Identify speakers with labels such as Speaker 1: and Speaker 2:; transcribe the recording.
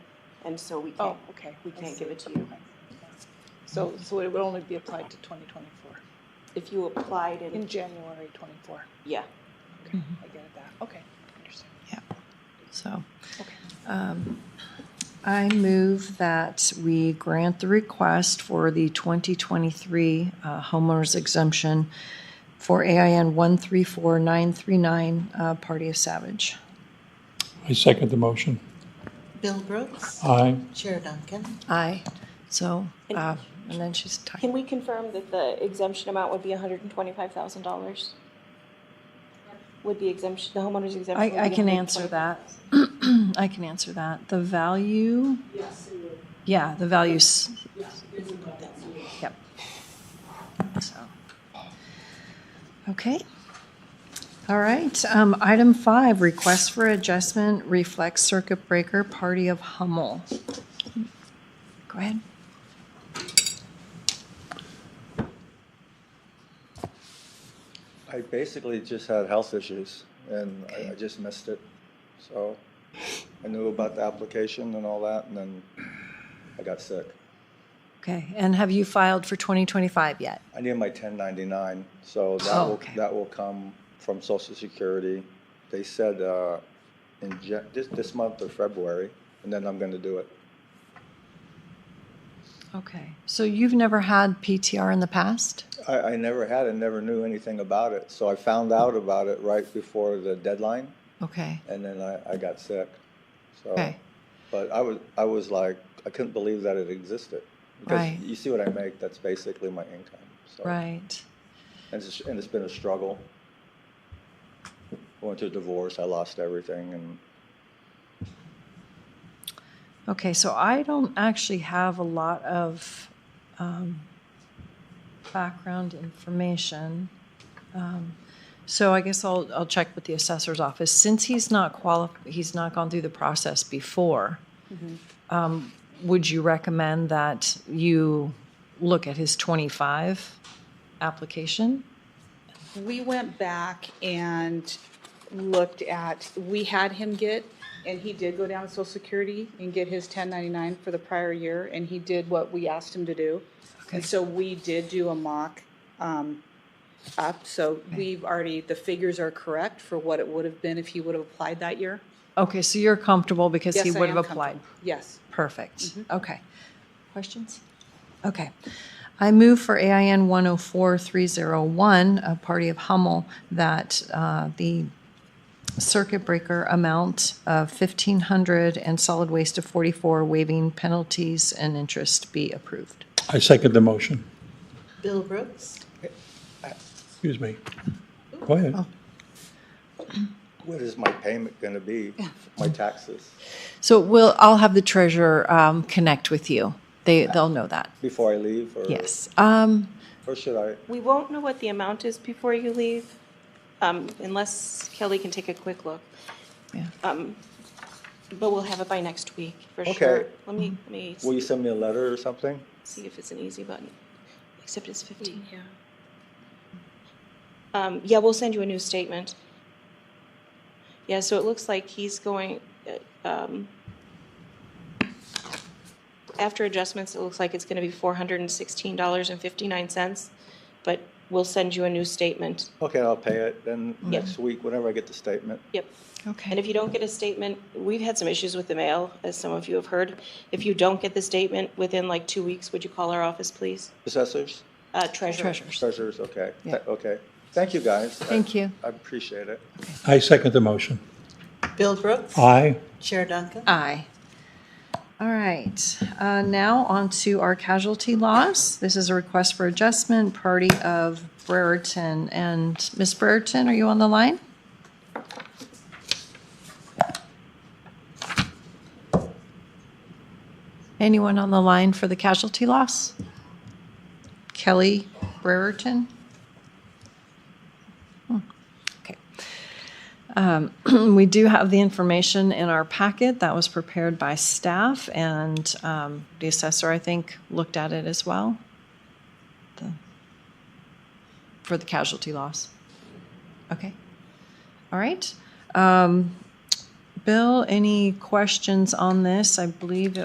Speaker 1: and so we
Speaker 2: Oh,
Speaker 1: can't,
Speaker 2: okay.
Speaker 1: we
Speaker 2: I
Speaker 1: can't
Speaker 2: see.
Speaker 1: give it to you.
Speaker 2: So, so it would only be applied to 2024,
Speaker 1: If you applied
Speaker 2: in
Speaker 1: and,
Speaker 2: January 24.
Speaker 1: yeah,
Speaker 2: Okay, I get it, that, okay, understand.
Speaker 3: So
Speaker 2: Okay.
Speaker 3: um, I move that we grant the request for the 2023 uh, homeowners exemption for AIN 134939, uh, Party of Savage.
Speaker 4: I second the motion.
Speaker 5: Bill Brooks,
Speaker 4: Aye.
Speaker 5: Chair Duncan.
Speaker 3: Aye. So, uh, and then she's
Speaker 1: can
Speaker 3: tied.
Speaker 1: we confirm that the exemption amount would be hundred and twenty-five thousand dollars? Would the exemption, the homeowner's exemption? would
Speaker 3: I, I
Speaker 1: be
Speaker 3: can answer
Speaker 1: 125,000.
Speaker 3: that. I can answer that. The value? Yeah, the values. Yep. So, okay. All right, um, item five, request for adjustment reflex circuit breaker party of Hummel. Go ahead.
Speaker 6: I basically just had health issues and I, I just missed it. So I knew about the application and all that, and then I got sick.
Speaker 3: Okay, and have you filed for 2025 yet?
Speaker 6: I need my 1099, so that
Speaker 3: Oh,
Speaker 6: will
Speaker 3: okay.
Speaker 6: that will come from Social Security. They said uh, in Jan- this this month or February, and then I'm going to do it.
Speaker 3: Okay, so you've never had PTR in the past?
Speaker 6: I, I never had it, never knew anything about it. So I found out about it right before the deadline,
Speaker 3: Okay,
Speaker 6: and then I, I got sick. So.
Speaker 3: okay.
Speaker 6: But I was, I was like, I couldn't believe that it existed. Because
Speaker 3: Right.
Speaker 6: you see what I make, that's basically my income. So.
Speaker 3: Right.
Speaker 6: And it's, and it's been a struggle. Went through a divorce, I lost everything, and
Speaker 3: Okay, so I don't actually have a lot of um, background information. Um, So I guess I'll, I'll check with the assessor's office. Since he's not quali, he's not gone through the process before,
Speaker 2: Mm-hmm.
Speaker 3: um, would you recommend that you look at his 25 application?
Speaker 2: We went back and looked at, we had him get, and he did go down to Social Security and get his 1099 for the prior year, and he did what we asked him to do.
Speaker 3: Okay.
Speaker 2: And so we did do a mock um, up, so we've already, the figures are correct for what it would have been if he would have applied that year.
Speaker 3: Okay, so you're comfortable because he
Speaker 2: Yes, I
Speaker 3: would have
Speaker 2: am comfortable.
Speaker 3: applied?
Speaker 2: Yes.
Speaker 3: Perfect. Okay. Questions? Okay. I oh move for AIN 104301, a party of Hummel, that uh, the circuit breaker amount of 1,500 and solid waste of 44, waiving penalties and interest be approved.
Speaker 4: I second the motion.
Speaker 5: Bill Brooks,
Speaker 4: Excuse me. Go ahead.
Speaker 6: what is my payment going to be? My taxes
Speaker 3: So we'll, I'll have the treasurer um, connect with you. They, they'll know that.
Speaker 6: before I leave, or
Speaker 3: Yes. Um,
Speaker 6: or should I?
Speaker 1: We won't know what the amount is before you leave, um, unless Kelly can take a quick look.
Speaker 3: Yeah.
Speaker 1: Um, But we'll have it by next week, for
Speaker 6: Okay.
Speaker 1: sure. Let me, let me
Speaker 6: Will you send me a letter or something?
Speaker 1: see if it's an easy button, except it's fifteen, yeah. Um, yeah, we'll send you a new statement. Yeah, so it looks like he's going, uh, um, after adjustments, it looks like it's gonna be four hundred and sixteen dollars and fifty-nine cents, but we'll send you a new statement.
Speaker 6: Okay, I'll pay it. Then
Speaker 1: Yeah.
Speaker 6: next week, whenever I get the statement.
Speaker 1: Yep. And
Speaker 3: Okay.
Speaker 1: if you don't get a statement, we've had some issues with the mail, as some of you have heard. If you don't get the statement within like two weeks, would you call our office, please?
Speaker 6: Assessors,
Speaker 1: Uh, treasurer.
Speaker 3: Treasurers.
Speaker 6: treasurers, okay,
Speaker 3: Yeah.
Speaker 6: okay. Thank you guys.
Speaker 3: Thank you.
Speaker 6: I appreciate it.
Speaker 4: I second the motion.
Speaker 5: Bill Brooks,
Speaker 4: Aye.
Speaker 5: Chair Duncan.
Speaker 3: Aye. All right, uh, now on to our casualty loss. This is a request for adjustment, party of Brereton. And Ms. Brereton, are you on the line? Anyone on the line for the casualty loss? Kelly Brereton? Hmm, Okay. Um, We do have the information in our packet that was prepared by staff, and um, the assessor, I think, looked at it as well the- for the casualty loss. Okay. All right. Um, Bill, any questions on this? I believe it